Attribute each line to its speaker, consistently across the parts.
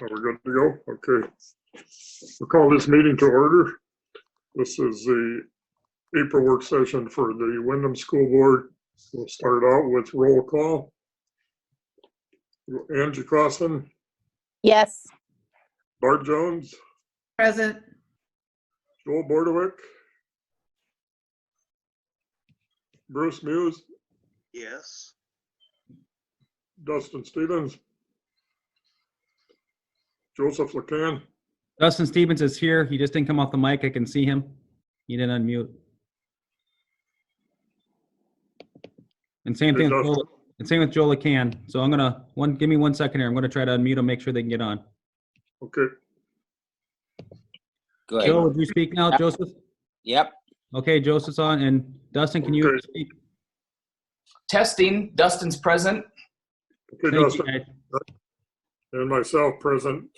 Speaker 1: Are we good to go? Okay. We'll call this meeting to order. This is the April work session for the Wyndham School Board. We'll start out with roll call. Angie Crossen,
Speaker 2: Yes.
Speaker 1: Bart Jones,
Speaker 3: Present.
Speaker 1: Joel Bordewick, Bruce Muse,
Speaker 4: Yes.
Speaker 1: Dustin Stevens, Joseph LaCan,
Speaker 5: Dustin Stevens is here. He just didn't come off the mic. I can see him. He didn't unmute. And same
Speaker 1: Hey,
Speaker 5: thing, with
Speaker 1: Dustin.
Speaker 5: Joel- and same with Joel Can. So I'm gonna, one, give me one second here. I'm gonna try to unmute him, make sure they can get on.
Speaker 1: okay,
Speaker 5: Joel,
Speaker 6: Good.
Speaker 5: would you speak now, Joseph?
Speaker 6: Yep.
Speaker 5: Okay, Joseph's on, and Dustin, can you
Speaker 1: Okay.
Speaker 5: speak?
Speaker 7: Testing, Dustin's present.
Speaker 1: okay,
Speaker 5: Thank you,
Speaker 1: Dustin.
Speaker 5: guys.
Speaker 1: and myself present.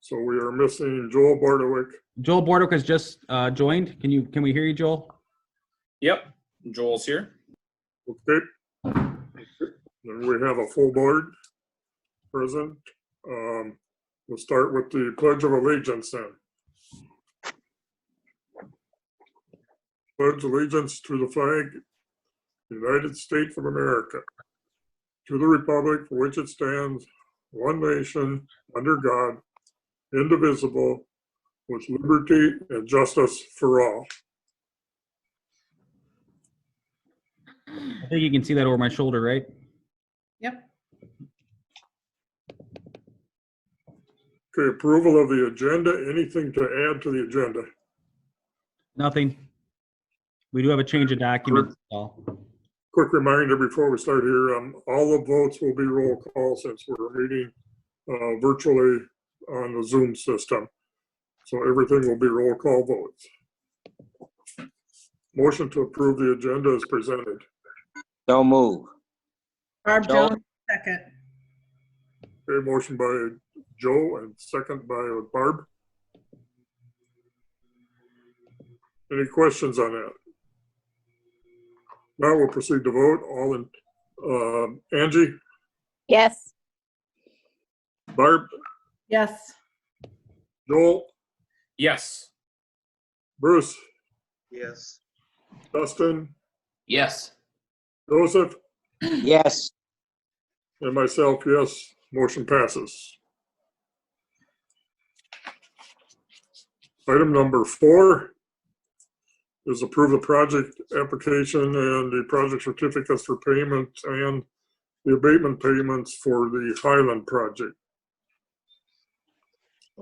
Speaker 1: So we are missing Joel Bardowick.
Speaker 5: Joel Bordewick has just uh, joined. Can you, can we hear you, Joel?
Speaker 7: Yep, Joel's here.
Speaker 1: Okay. Then we have a full board present. Um, We'll start with the Pledge of Allegiance then. Pledge allegiance to the flag, United States of America, to the republic for which it stands, one nation, under God, indivisible, with liberty and justice for all.
Speaker 5: I think you can see that over my shoulder, right?
Speaker 3: Yep.
Speaker 1: Okay, approval of the agenda. Anything to add to the agenda?
Speaker 5: Nothing. We do have a change of document. so.
Speaker 1: Quick reminder before we start here, um, all the votes will be roll call since we're meeting, uh, virtually on the Zoom system. So everything will be roll call votes. Motion to approve the agenda is presented.
Speaker 6: Don't move.
Speaker 3: Barb
Speaker 6: Joe.
Speaker 3: Jones, second.
Speaker 1: Okay, motion by Joe and second by Barb. Any questions on that? Now we'll proceed to vote. All in, um, Angie,
Speaker 2: Yes.
Speaker 1: Barb,
Speaker 3: Yes.
Speaker 1: Joel,
Speaker 7: Yes.
Speaker 1: Bruce,
Speaker 4: Yes.
Speaker 1: Dustin,
Speaker 7: Yes.
Speaker 1: Joseph,
Speaker 6: Yes.
Speaker 1: and myself, yes, motion passes. Item number four is approve the project application and the project certificates for payment and the abatement payments for the Highland project.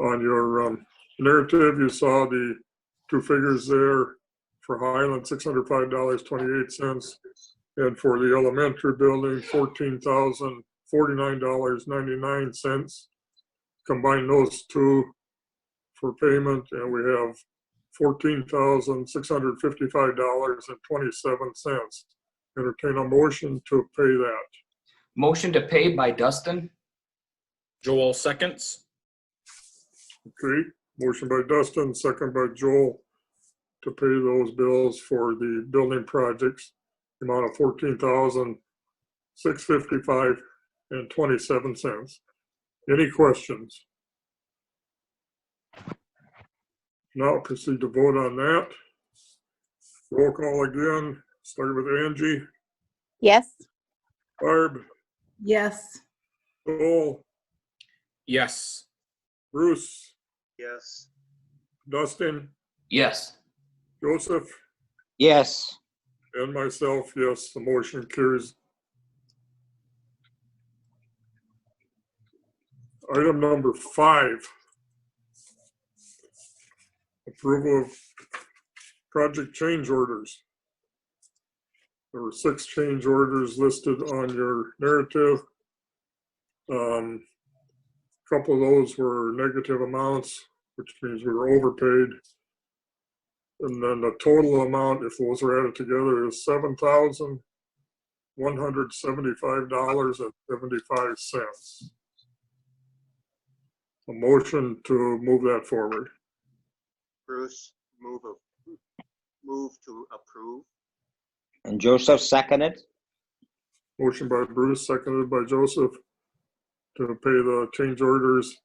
Speaker 1: On your um, narrative, you saw the two figures there for Highland, $605.28, and for the elementary building, fourteen thousand forty-nine dollars ninety-nine cents. Combine those two for payment, and we have fourteen thousand six hundred fifty-five dollars and twenty-seven cents. Entertain a motion to pay that.
Speaker 7: Motion to pay by Dustin.
Speaker 8: Joel seconds.
Speaker 1: Okay, motion by Dustin, second by Joel to pay those bills for the building projects, the amount of fourteen thousand, six fifty-five and twenty-seven cents. Any questions? Now proceed to vote on that. Roll call again, starting with Angie,
Speaker 2: Yes.
Speaker 1: Barb,
Speaker 3: Yes.
Speaker 1: Joel,
Speaker 8: Yes.
Speaker 1: Bruce,
Speaker 4: Yes.
Speaker 1: Dustin,
Speaker 7: Yes.
Speaker 1: Joseph,
Speaker 6: Yes.
Speaker 1: And myself, yes, the motion carries. Item number five. Approval of project change orders. There were six change orders listed on your narrative. Um, Couple of those were negative amounts, which means we were overpaid. And then the total amount, if those are added together, is seven thousand one hundred seventy-five dollars and seventy-five cents. A motion to move that forward.
Speaker 4: Bruce, move, a- move to approve.
Speaker 6: And Joseph seconded?
Speaker 1: Motion by Bruce, seconded by Joseph to pay the change orders